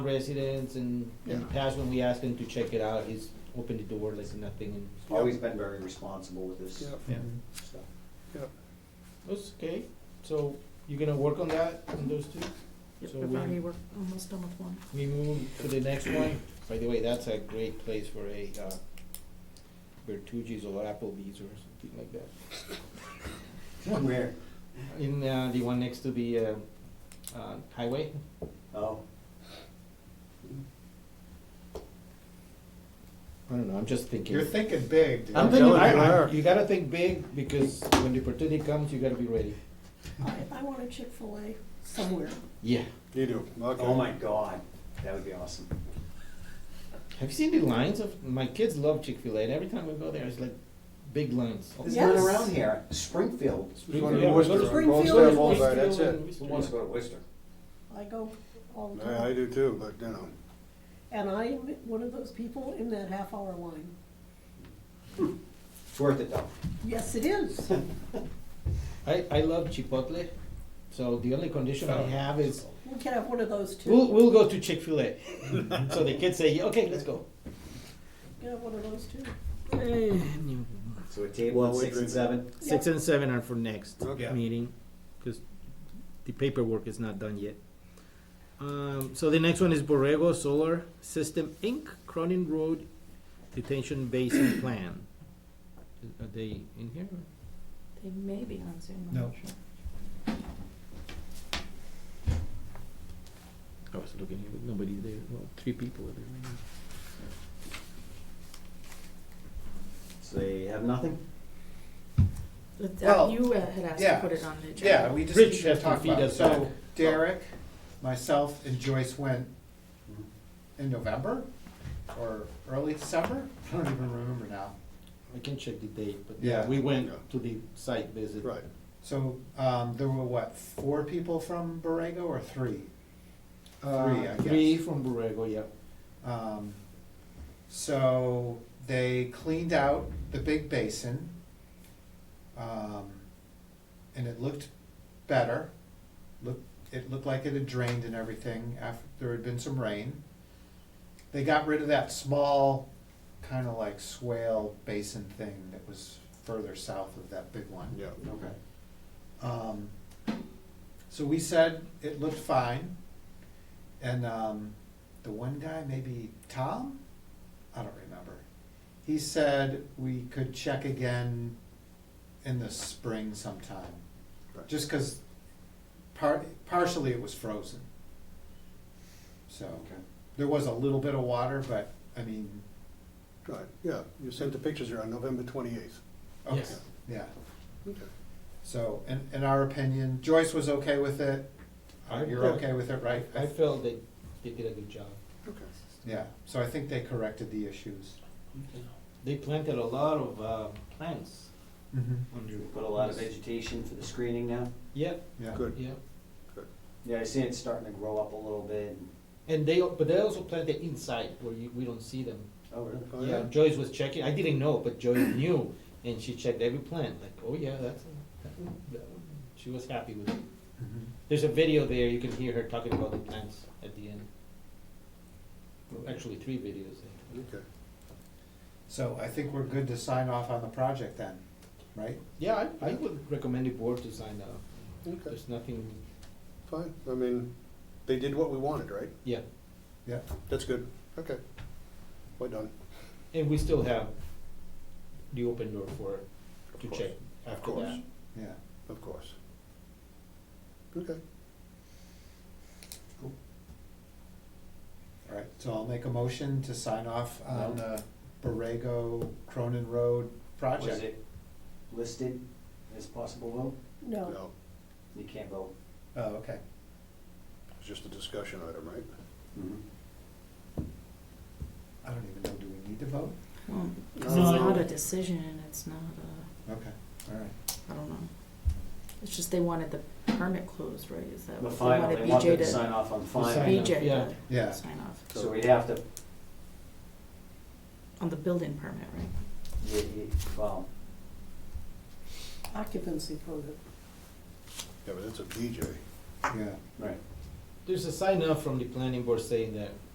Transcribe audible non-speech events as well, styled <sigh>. residents and in the Yeah. past when we asked him to check it out, he's opened the door like nothing and Always been very responsible with this Yep. Yeah. stuff. that's okay. So you're gonna work on that on those two? Yep, So I've we- already worked, almost done with one. We move to the next one. By the way, that's a great place for a uh, Bertucci's or Applebee's or something like that. Where, In uh, the one next to the uh, uh, highway. oh, I don't know. I'm just thinking. You're thinking big, dude. I'm thinking. telling I, you. I, you gotta think big because when the opportunity comes, you gotta be ready. I, I want a Chick-fil-A somewhere. Yeah. You do, okay. oh my God, that would be awesome. Have you seen the lines of my kids love Chick Fil A, and every time we go there, it's like big lines. There's none Yes. around here, Springfield, There's one in Yeah, Worcester. Springfield Bullseye, is Bullseye, that's Springfield it. who and wants to Worcester. go to Worcester? I go all the I, I time. do too, but you know, And I'm one of those people in that half-hour line. It's worth it though. Yes, it is. I, I love Chipotle, so the only condition I have is We can have one of those too. we'll, we'll go to Chick Fil A. <laughs> so the kids say, yeah, okay, let's go. We can have one of those too. So a table at Well, we six and agree. seven, Six Yeah. and seven are for next Okay. meeting because the paperwork is not done yet. Um, so the next one is Borrego Solar System Inc., Cronin Road Detention <coughs> Basin Plan. Are they in here? They may be on Zoom, I'm No. not sure. I was looking here, but nobody there. Well, three people are there right now. so they have nothing? But that- Well, you uh, had asked yeah. to put it on the agenda. yeah, we just Rich need to has to talk feed about it. us back. So Derek, myself, and Joyce went Mhm. in November or early December. I don't even remember now. I can check the date, but Yeah. we went Yeah. to the site visit. So um, there were what four people from Borrego or three? Three, I guess. Uh, Three from Borrego, yeah. Um, so they cleaned out the big basin, um, and it looked better. Looked, it looked like it had drained and everything after there had been some rain. They got rid of that small, kind of like swale basin thing that was further south of that big one. Yeah. Okay. Um, so we said it looked fine, and um, the one guy, maybe Tom, I don't remember. He said we could check again in the spring sometime, just because par- partially it was frozen. So Okay. there was a little bit of water, but I mean, Right, yeah, you sent the pictures here on November twenty-eighth. okay, Yes. yeah. Okay. So, in, in our opinion, Joyce was okay with it. Uh, I- You're okay with it, right? I felt they, they did a good job. Okay. Yeah, so I think they corrected the issues. They planted a lot of uh, plants. We Put a lot of vegetation for the screening now? Yep, Yeah. Good. yep. Yeah, I see it starting to grow up a little bit. and- And they, but they also planted inside where you, we don't see them. Oh, really? Oh, Yeah, yeah. Joyce was checking, I didn't know, but Joyce knew, and she checked every plant, like, oh yeah, that's, a- that one, that one. She was happy with it. Mhm. There's a video there, you can hear her talking about the plants at the end. Well, Actually, three videos. I think. Okay. So I think we're good to sign off on the project then, right? Yeah, I, I would recommend the board to sign up. Okay, There's nothing, fine, I mean, they did what we wanted, right? yeah, Yeah. That's good, okay. We're done. and we still have the open door for, Of to course. check Of after course, that. Yeah. of course. Okay, All right, so I'll make a motion to sign off No. on the Borrego Cronin Road Was project. it listed as possible vote? No, no, You can't vote. Oh, okay. it's just a discussion item, right? Mhm. I don't even know, do we need to vote? Well, 'cause No. it's not a decision, it's not a, Okay, all right. I don't know. It's just they wanted the permit closed, right? Is that The what final, wanted they want them BJ to to sign off on sign final. off, yeah. BJ Yeah. to sign off So we'd have to, on the building permit, right? yeah, yeah, well, occupancy permit. Yeah, but it's a DJ. Yeah, right. Th- there's a sign up from the planning board saying that